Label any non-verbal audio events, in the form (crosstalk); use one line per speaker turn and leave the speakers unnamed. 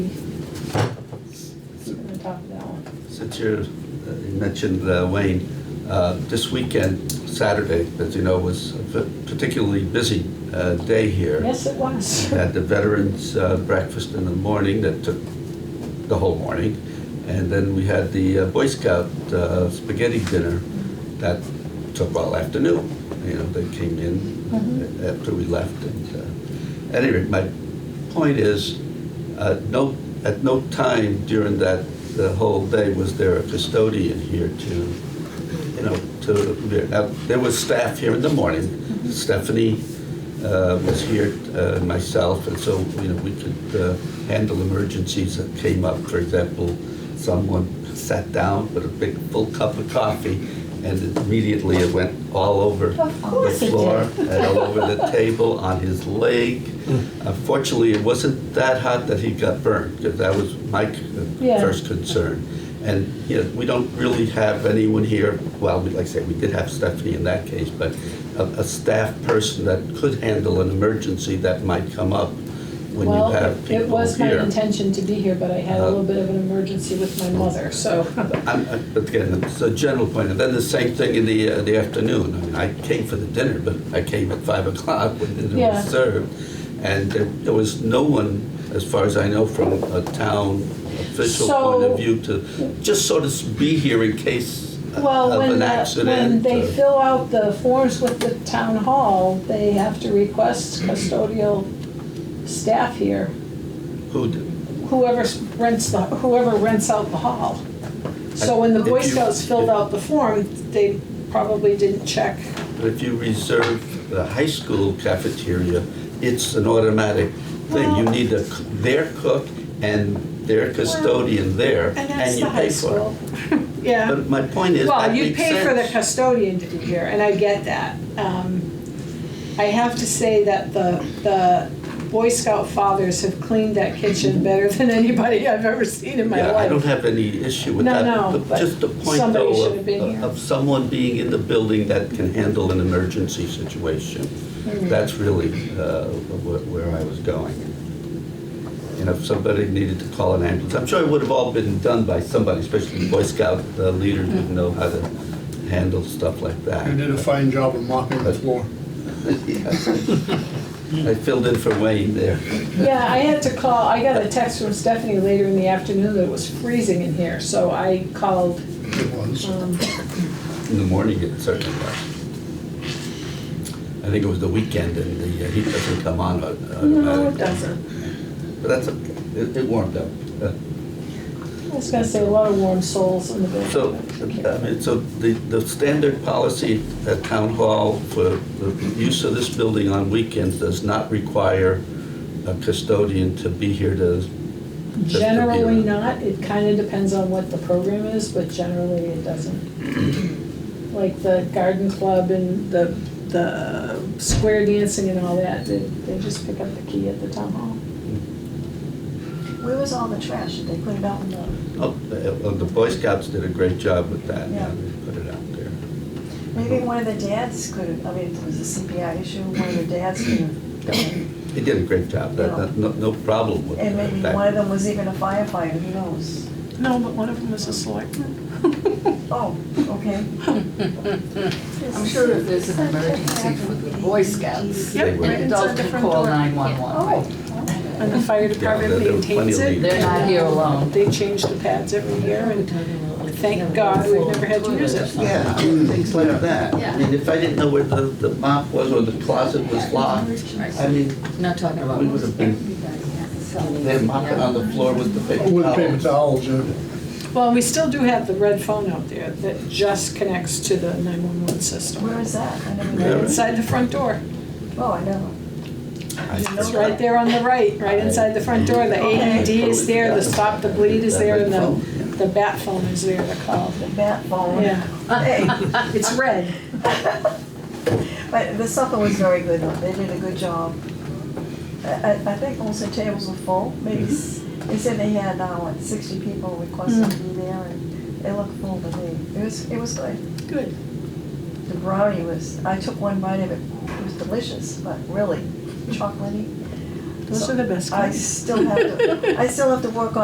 talk to that one.
Since you're, uh, you mentioned uh, Wayne, uh, this weekend, Saturday, as you know, was a p- particularly busy uh, day here.
Yes, it was.
Had the veterans uh, breakfast in the morning that took the whole morning. And then we had the uh, Boy Scout uh, spaghetti dinner that took all afternoon. You know, they came in after we left. And uh, at any rate, my point is, uh, no, at no time during that, the whole day was there a custodian here to, you know, to, now, there was staff here in the morning. Stephanie uh, was here, uh, myself, and so, you know, we could uh, handle emergencies that came up. For example, someone sat down with a big full cup of coffee, and immediately it went all over
Of course
the
it
floor
did.
and all over the table on his leg. Unfortunately, it wasn't that hot that he got burned, because that was my c-
Yeah.
first concern. And, you know, we don't really have anyone here, well, we- like I say, we did have Stephanie in that case, but a, a staff person that could handle an emergency that might come up when you
Well,
have
it-
people here.
It was my intention to be here, but I had a
Uh,
little bit of an emergency with my mother,
(laughs)
so.
I'm, I- but again, it's a general point, and then the same thing in the, uh, the afternoon. I mean, I came for the dinner, but I came at five (laughs) o'clock when the dinner
Yeah.
was served. And there, there was no one, as far as I know, from a town official point
So-
of view to just sort of be here in case of
Well, when,
an
the-
accident.
when they
or-
fill out the forms with the town hall, they have to request custodial staff here,
Who, d-
whoever rents the, whoever rents out the hall. So when the
If
Boy
you-
Scouts filled out the form, they probably didn't check.
But if you reserve the high school cafeteria, it's an automatic thing. You need a, c- their cook and their custodian there,
And that's
and
the
you
high
pay for it.
(laughs) school. Yeah.
But my point is,
Well,
that
you
makes
pay for the
sense.
custodian to be here, and I get that. Um, I have to say that the, the Boy Scout fathers have cleaned that kitchen better than anybody I've ever seen in my
Yeah, I don't
life.
have any issue with
No,
that.
no,
But
but
Just the point
somebody
though
should have been
of,
here.
of someone being in the building that can handle an emergency situation.
Mm-hmm.
That's really uh, wh- where I was going. You know, if somebody needed to call an ambulance, I'm sure it would have all been done by somebody, especially Boy Scout uh, leaders would
Mm-hmm.
know how to handle stuff like that.
You did a fine job of mopping the floor.
I filled in for Wayne there.
Yeah, I had to call, I got a text from Stephanie later in the afternoon that it was freezing in here, so I called,
It was.
um,
In the morning, it certainly was. I think it was the weekend and the uh, heat doesn't come on
no,
au-
it
automatically.
doesn't.
But that's okay, it, it warmed up. Uh,
I was gonna say, a lot of warm souls in the building.
So, I mean, so the, the standard policy at town hall for the use of this building on weekends does not require a custodian to be here to, just to be
Generally
around.
not, it kinda depends on what the program is, but generally it doesn't. Like the garden club and the, the square dancing and all that, they, they just pick up the key at the town hall.
oh,
Where was all the trash? Did they put it out in the,
oh, the well, the Boy Scouts did a great job with that.
Yeah.
They Put it out there.
maybe one of the dads could have, I mean, it was a CPI issue, one of the dads could have done
They did a great job, that, that- no, no problem with
it.
that.
And maybe one of them was even a firefighter, who knows?
No, but one of them was a selectman.
Oh, okay.
I'm sure if there's an emergency for the Boy Scouts,
Yep.
the adults can
Oh,
call 911.
And the fire
there-
department
there were plenty
maintains
of
it.
leaks.
They're not here alone.
They change the pads every year and thank God we've never had to use it.
Yeah, I mean, things like that.
Yeah.
I mean, if I didn't know where the, the mop was or the closet was locked, I mean,
Not talking about.
We would have been- they're mopping on the floor with the paper
With paper
towels.
towels, yeah.
Well, we still do have the red phone out there that just connects to the nine-one-one system.
where is that? I never
Yeah.
knew.
Inside the front door.
Oh, I never.
It's right there on the right, right inside the front door, the AED is there, the stop the bleed is there, and the, the bat phone is there to call.
The bat phone.
Yeah.
Hey,
It's red.
but the supper was very good, though. They did a good job. I, I I think most of the tables were full, maybe,
Mm-hmm.
s- they said they had, uh, what, sixty people requested to be there, and they looked full to me. It was, it was good.
Good.
The brownie was, I took one bite of it, it was delicious, but really chocolatey.
Those are the best
I
kinds.
still have to, I still have to work on.